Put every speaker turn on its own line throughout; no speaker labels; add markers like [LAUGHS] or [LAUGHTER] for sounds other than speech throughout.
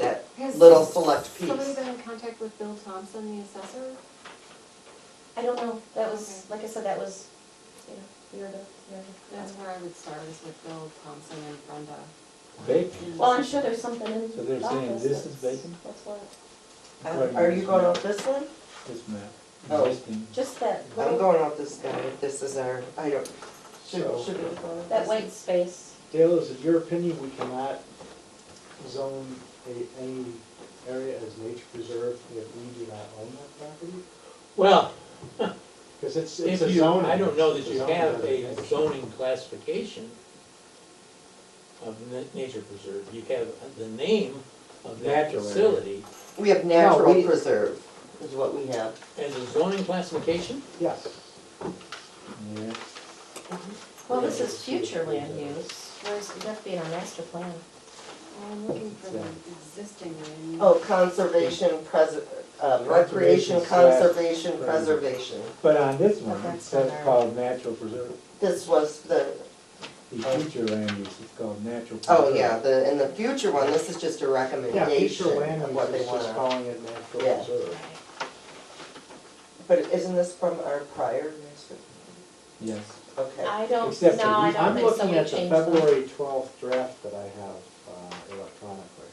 Has
little select
Somebody
piece.
been in contact with Bill Thompson, the assessor?
I don't know, that was, like I said, that was, you know, year to, year to.
That's where I would start is with Bill Thompson and Brenda.
Bacon.
Well, I'm sure there's something in the office.
So they're saying this is
that's-
bacon?
That's what,
Uh, Are you going off this one?
This map,
Oh.
existing.
just that,
I'm
little-
going off this guy, if this is our, I don't, should, should we go off
that
this?
white space.
Dale, is it your opinion we cannot zone a, any area as nature preserve if we do not own that property?
Well,
Because it's,
if
it's a
you,
zoning.
I don't know
it's
that
a
you
zoning
have a
designation.
zoning classification of na- nature preserve, you have the name of that
Natural area.
facility
We have natural
we-
preserve is what we have.
as a zoning classification.
Yes.
Yeah.
Well, this is future land use, where's, that'd be in our master plan.
I'm looking for the existing land.
Oh, conservation, preser, uh,
Conservation
recreation,
slash
conservation,
preserve.
preservation.
But on this
But
one,
that's
it's
not our-
called natural preserve,
This was the,
the
Oh.
future land use is called natural preserve.
oh yeah, the, in the future one, this is just a
Yeah,
recommendation
future land
of what
use
they
is just
want.
calling it natural
Yeah.
reserve.
But isn't this from our prior master?
Yes,
Okay.
I don't,
Except for
no, I
these-
don't
I'm
think so,
looking
we
at the
changed them.
February twelfth draft that I have uh, electronically.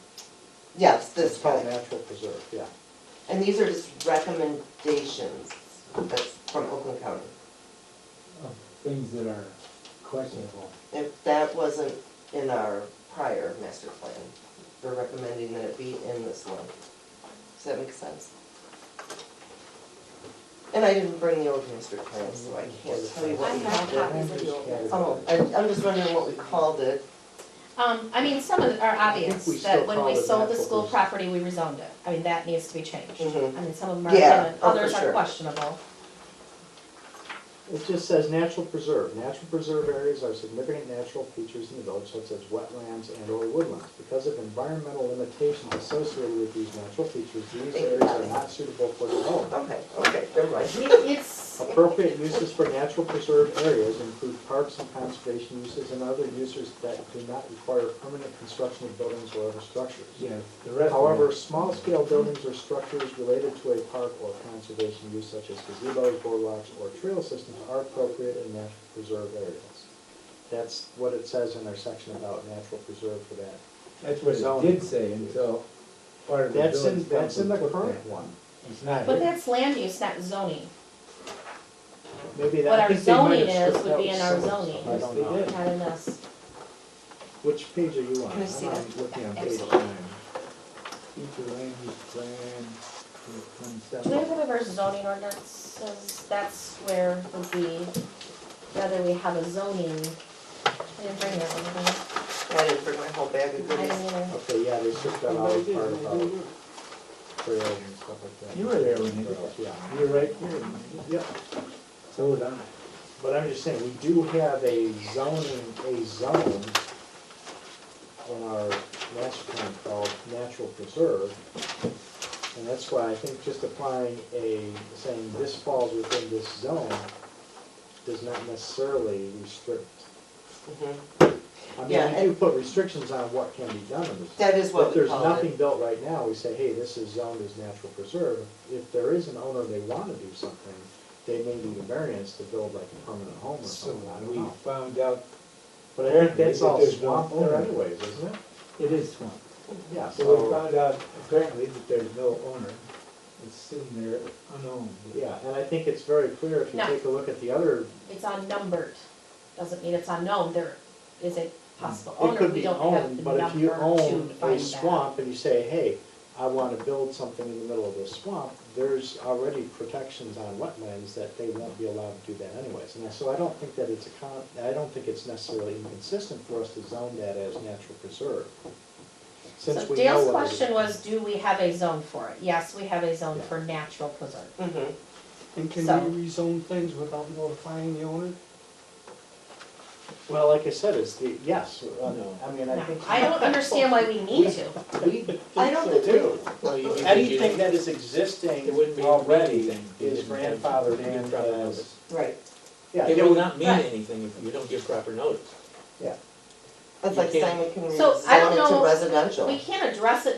Yes,
It's
this
called
guy.
natural preserve, yeah.
And these are just recommendations that's from Oakland County.
Oh.
of things that are questionable.
If that wasn't in our prior master plan, we're recommending that it be in this one. Does that make sense? And I didn't bring the old master plan, so I can't tell you
I
what we
have
called it.
copies of the old ones.
Oh, I, I'm just wondering what we called it.
Um, I mean, some of it are obvious,
we still
that when we
call it
sold the
natural
school
reserve.
property, we rezoned it, I mean, that needs to be changed.
Mhm.
I mean, some of them are,
Yeah,
evident,
oh, for
others are
sure.
questionable.
It just says natural preserve. Natural preserve areas are significant natural features in the village such as wetlands and or woodlands. Because of environmental limitations associated with these natural features, these areas are not suitable for development.
Okay, okay, never mind. [LAUGHS]
It-
[LAUGHS]
It's,
Appropriate uses for natural preserve areas include parks and conservation uses and other uses that do not require permanent construction of buildings or other structures.
Yes, the rest of
However,
it,
small-scale buildings or structures related to a park or conservation use such as gazebos, boardwalks, or trail systems are appropriate in natural preserve areas. That's what it says in our section about natural preserve for that.
that's what
zoning.
it did say until part of the
That's in,
village
that's in the
council put
current
that.
one.
It's not
but
here.
that's land use, not zoning, What
Maybe that, I
our
think they might
zoning
have
is
stripped
would be
out
in our
some-
zoning.
I
Yes,
don't know.
they did.
not in this.
Which page are you on?
Can I see
I'm
that?
Looking on page
Absolutely.
nine.
Future land use plan,
Do
twenty-seven.
we have one of our zoning ordinances, that's where would be, whether we have a zoning, I didn't bring that one,
I didn't bring my whole bag of
did I? I
goodies.
didn't either.
Okay, yeah, they stripped out all the part about trails and stuff like that.
You were there when they did that.
Yeah.
You're right here,
Yep.
so was I.
But I'm just saying, we do have a zoning, a zone in our master plan called natural preserve. And that's why I think just applying a, saying this falls within this zone does not necessarily restrict.
Mhm.
I
Yeah,
mean, we do put restrictions on what can be done in this.
That is what
If
we
there's
called
nothing
it.
built right now, we say, hey, this is zoned as natural preserve. If there is an owner, they wanna do something, they may need a variance to build like a permanent home or
So
something, I don't
we
know.
found out
But I think
Apparently,
that's all
but there's no
swamp there
owner.
anyways, isn't it?
it is swamp.
Yeah,
So we
so,
found out apparently that there's no owner. It's sitting there unowned.
yeah, and I think it's very clear if you
No.
take a look at the other,
It's unnumbered, doesn't mean it's unknown, there is a possible
it
owner,
could
we
be
don't have the
owned, but if
number
you
to
own
find that.
a swamp and you say, hey, I wanna build something in the middle of this swamp, there's already protections on wetlands that they won't be allowed to do that anyways. And so I don't think that it's a con, I don't think it's necessarily inconsistent for us to zone that as natural preserve. Since
So
we know
Dale's
what it
question
is.
was, do we have a zone for it? Yes, we have a zone
Yeah.
for natural preserve.
Mhm.
And can
So-
we rezone things without notifying the owner?
Well, like I said, it's the, yes, uh,
No.
I mean, I
Now,
think. [LAUGHS]
I don't understand why we need to.
I don't think we,
Well, you- you-
Anything that is
It
existing
wouldn't be
already
anything.
is grandfathered in as.
right,
Yeah,
It
yeah,
will
we-
not mean
Right.
anything if you don't give proper notice.
that's
You
like
can't-
saying we can
So, I
rezone
don't
it to
know-
residential.
We can't address it